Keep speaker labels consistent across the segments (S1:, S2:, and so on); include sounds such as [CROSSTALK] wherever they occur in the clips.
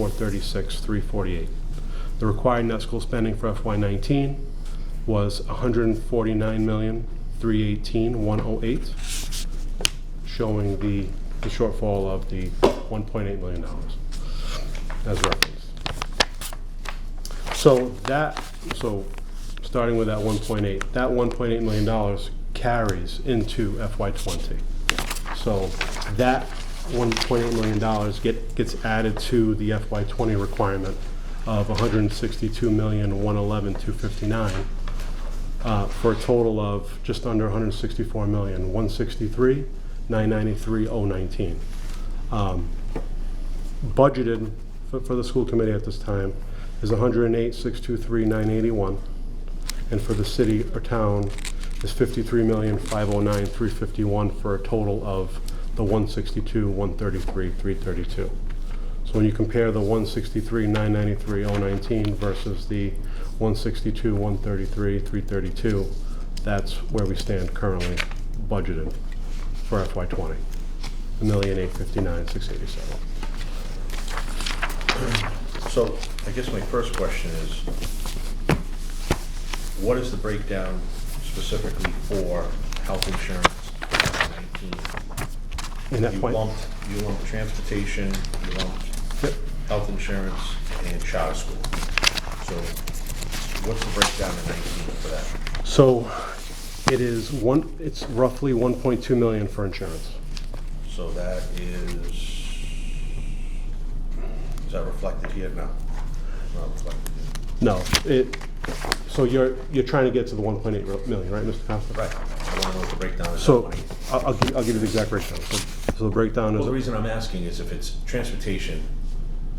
S1: 436, 348. The required net school spending for FY19 was 149,318,108, 108, showing the the shortfall of the $1.8 million as referenced. So that, so, starting with that 1.8, that 1.8 million dollars carries into FY '20. So that 1.8 million dollars get, gets added to the FY '20 requirement of 162,111,259, uh, for a total of just under 164 million, 163, 993, 019 budgeted for, for the school committee at this time is 108, 623, 981. And for the city or town is 53,509,351 for a total of the 162, 133, 332. So when you compare the 163, 993, 019 versus the 162, 133, 332, that's where we stand currently budgeted for FY '20. 1,859,687.
S2: So I guess my first question is, what is the breakdown specifically for health insurance nineteen?
S1: In
S2: You
S1: FY
S2: lumped, you lumped transportation, you lumped
S1: Yep.
S2: health insurance and charter school. So what's the breakdown in nineteen for that?
S1: So it is one, it's roughly 1.2 million for insurance.
S2: So that is, is that reflected here? No. Not reflected.
S1: No, it, so you're, you're trying to get to the 1.8 million, right, Mr. Costa?
S2: Right. I want to know what the breakdown is.
S1: So
S2: That money.
S1: I'll, I'll gi- I'll give you the exact breakdown. So so the breakdown
S2: Well, the
S1: is,
S2: reason I'm asking is if it's transportation,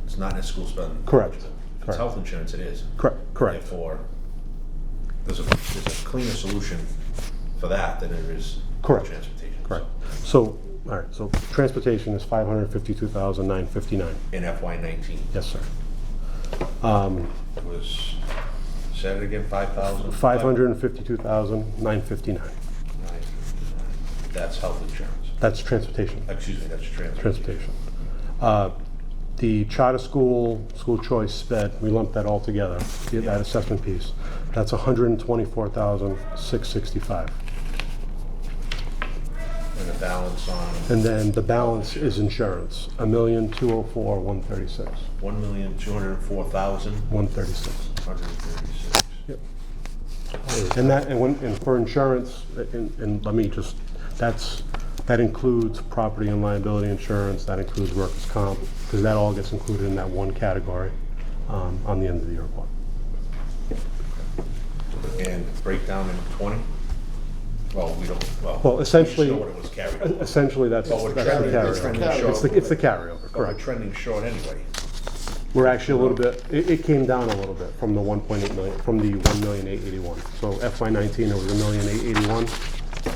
S2: it's not in a school spending.
S1: Correct.
S2: If it's
S1: Correct.
S2: health insurance, it is.
S1: correct, correct.
S2: Therefore, there's a, there's a cleaner solution for that than there is for
S1: Correct.
S2: transportation.
S1: Correct. So, all right, so transportation is 552,959.
S2: In FY nineteen,
S1: Yes, sir.
S2: it was, say it again, five thousand?
S1: 552,959.
S2: That's health insurance.
S1: That's transportation.
S2: Excuse me, that's transportation.
S1: transportation. Uh, The charter school, school choice sped, we lumped that all together, the- that assessment piece. That's 124,665.
S2: And the balance on
S1: And then the balance is insurance, a million two hundred four one thirty six.
S2: one million, two hundred and four thousand,
S1: 136.
S2: hundred and thirty-six.
S1: And that, and when, and for insurance, and, and let me just, that's, that includes property and liability insurance, that includes workers' comp, because that all gets included in that one category um, on the end of the report.
S2: And breakdown in twenty? Well, we don't, well.
S1: Well,
S2: we just
S1: essentially-
S2: know what it was carried over.
S1: Essentially, that's,
S2: Well, we're
S1: that's the
S2: trending- we're trending
S1: carryover. It's
S2: short.
S1: the, it's the carryover,
S2: But
S1: [LAUGHS]
S2: we're
S1: correct.
S2: trending short anyway.
S1: We're actually a little bit, it, it came down a little bit from the one point eight million, from the one million eight eighty-one. So FY nineteen, it was a million eight eighty-one,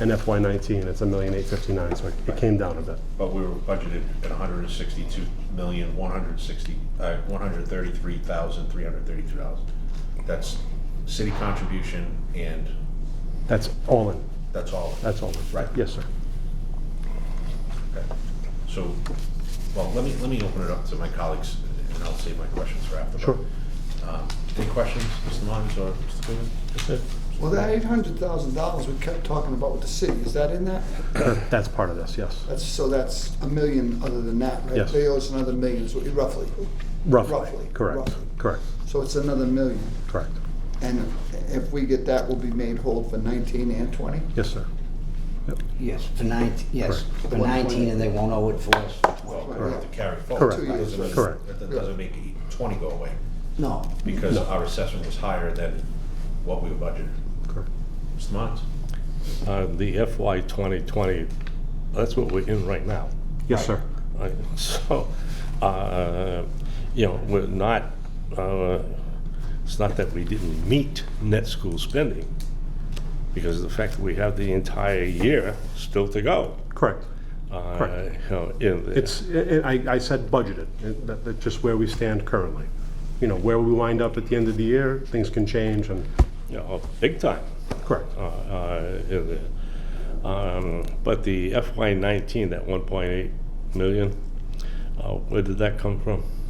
S1: and FY nineteen, it's a million eight fifty-nine, so it- it came down a bit.
S2: But we were budgeted at hundred and sixty-two million, one hundred and sixty, uh, one hundred and thirty-three thousand, three hundred and thirty-two dollars. That's city contribution and
S1: That's all in,
S2: that's all. of it.
S1: that's all in.
S2: Right.
S1: Yes, sir.
S2: Okay. So, well, let me, let me open it up to my colleagues and I'll save my questions for after. but,
S1: Sure.
S2: um, Any questions, Mr. Lyons or Mr. Coogan?
S3: Well, that eight hundred thousand dollars we kept talking about with the city, is that in that?
S1: That's part of this, yes,
S3: That's, so that's a million other than that, right?
S1: Yes.
S3: They owe us another million, is what you- roughly.
S1: roughly,
S3: Roughly,
S1: correct,
S3: roughly.
S1: correct,
S3: So it's another million.
S1: correct.
S3: And if we get that, we'll be made whole for nineteen and twenty?
S1: Yes, sir.
S4: Yes, for 19, yes, for
S3: One point
S4: 19, and they won't owe it for us.
S2: Well, we have to carry forward.
S1: Correct.
S2: That doesn't-
S3: Correct.
S1: Correct.
S2: That doesn't make it twenty go away,
S4: No,
S2: because our assessment was higher than what we were budgeted.
S1: Correct.
S2: Mr. Mons?
S5: Uh, The FY 2020, that's what we're in right now. [LAUGHS]
S1: Yes, sir.
S5: Right, So, uh, you know, we're not, uh, it's not that we didn't meet net school spending, because of the fact that we have the entire year still to go.
S1: Correct.
S5: uh,
S1: Correct.
S5: you know, in the-
S1: It's, i- i- I, I said budgeted, It- that, that's just where we stand currently. You know, where we wind up at the end of the year, things can change and,
S5: You know, big time.
S1: correct,
S5: uh, uh, in the- um, But the FY nineteen, that one point eight million, uh, where did that come from?